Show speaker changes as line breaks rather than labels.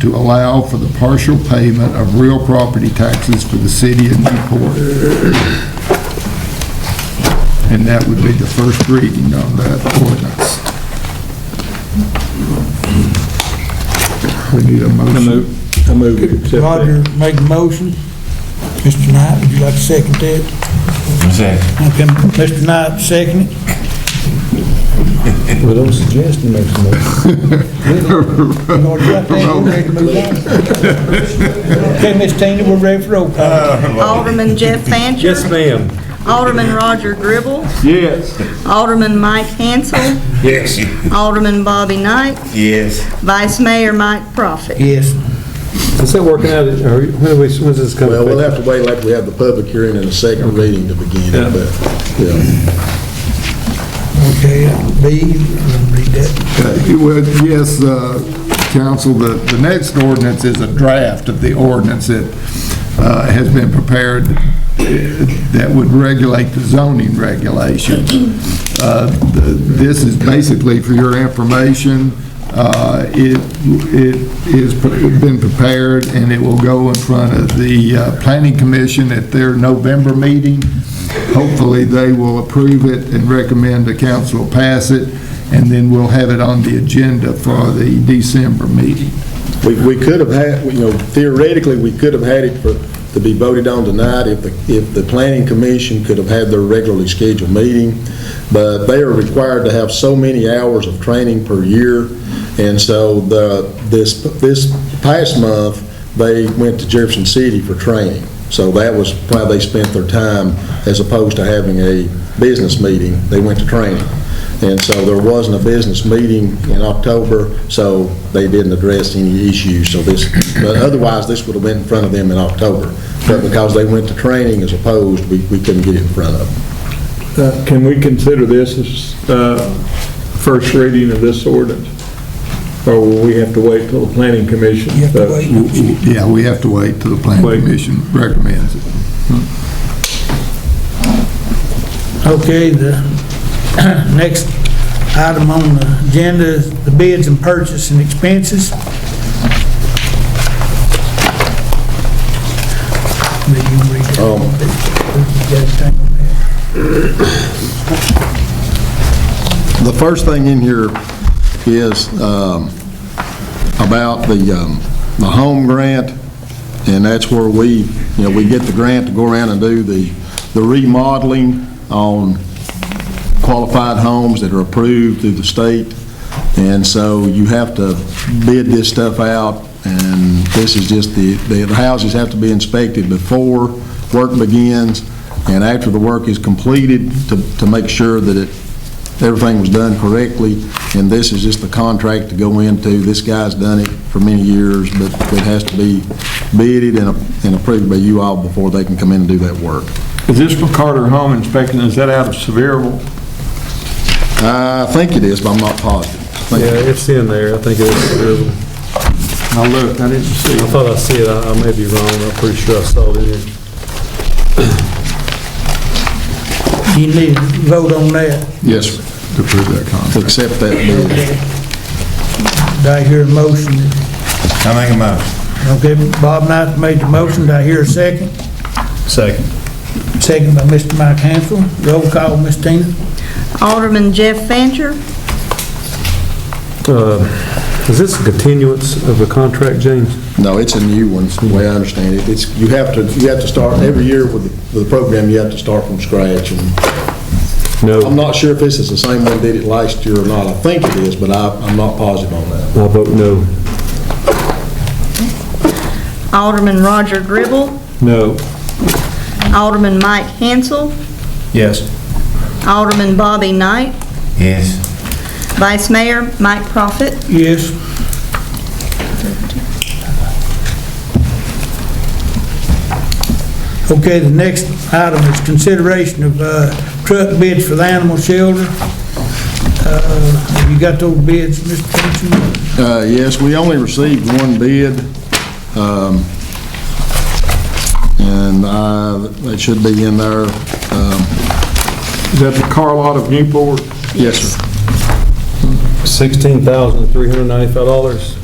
to allow for the partial payment of real property taxes for the city of Newport. And that would be the first reading on that ordinance. We need a
I
motion.
move, I move we accept
Roger
that.
make the motion. Mr. Knight, would you like to second that?
Second.
Okay, Mr. Knight, second it.
Well, don't suggest he makes a motion.
You want to write that? We're ready to move on. Okay, Ms. Tina, we're ready for roll call.
Oh.
Alderman Jeff Fancher.
Yes, ma'am.
Alderman Roger Gribble.
Yes.
Alderman Mike Hansel.
Yes.
Alderman Bobby Knight.
Yes.
Vice Mayor Mike Profit.
Yes.
Is that working out, or when are we, when's this coming?
Well, we'll have to wait like we have the public hearing and the second reading to begin
Yeah.
it, but, yeah.
Okay, B, I'm gonna read that.
Okay, Uh, well, yes, uh, council, the, the next ordinance is a draft of the ordinance that uh, has been prepared eh, that would regulate the zoning regulations. Uh, the- This is basically for your information. Uh, It, it is pre- been prepared, and it will go in front of the uh, planning commission at their November meeting. Hopefully, they will approve it and recommend the council pass it, and then we'll have it on the agenda for the December meeting.
We, we could have had, you know, theoretically, we could have had it for, to be voted on tonight if the, if the planning commission could have had their regularly scheduled meeting, but they are required to have so many hours of training per year, and so the, this, this past month, they went to Jefferson City for training. So that was why they spent their time, as opposed to having a business meeting, they went to training. And so there wasn't a business meeting in October, so they didn't address any issues, so this, but otherwise, this would have been in front of them in October. But because they went to training as opposed, we, we couldn't get it in front of them.
Uh, Can we consider this as uh, first reading of this ordinance? Or will we have to wait till the planning commission?
You have to
uh,
wait.
Yeah, we have to wait till the planning
Wait.
commission recommends it.
Okay, the next item on the agenda is the bids and purchase and expenses. Maybe you read that.
Um,
You got anything on that?
The first thing in here is um, about the, um, the home grant, and that's where we, you know, we get the grant to go around and do the, the remodeling on qualified homes that are approved through the state. And so you have to bid this stuff out, and this is just the, the houses have to be inspected before work begins and after the work is completed to, to make sure that it, everything was done correctly. And this is just the contract to go into. This guy's done it for many years, but it has to be bidded and and approved by you all before they can come in and do that work.
Is this for Carter Home Inspection, is that out of Sevierville?
I think it is, but I'm not positive. I think it is.
Yeah, it's in there, I think it's,
I looked, I didn't see.
I
it.
thought I see it, I I may be wrong, I'm pretty sure I saw it in here.
You need to vote on that.
Yes, sir.
to approve that contract.
to accept that bid.
Do I hear a motion?
I make a motion.
Okay, Bob Knight made the motion, do I hear a second?
Second.
Second by Mr. Mike Hansel, roll call, Ms. Tina.
Alderman Jeff Fancher.
Uh, Is this a continuance of the contract, James?
No, it's a new one, the way I understand it. It's, you have to, you have to start, every year with the with the program, you have to start from scratch. And
No.
I'm not sure if this is the same one did it last year or not. I think it is, but I, I'm not positive on that.
I vote no.
Alderman Roger Gribble.
No.
Alderman Mike Hansel.
Yes.
Alderman Bobby Knight.
Yes.
Vice Mayor Mike Profit.
Yes. Okay, the next item is consideration of uh, truck bids for the animal shelter. Uh, You got those bids, Mr. Thompson?
Uh, Yes, we only received one bid, um, and I- it should be in there. Um,
Is that the car lot of Newport?
Yes, sir.
$16,395?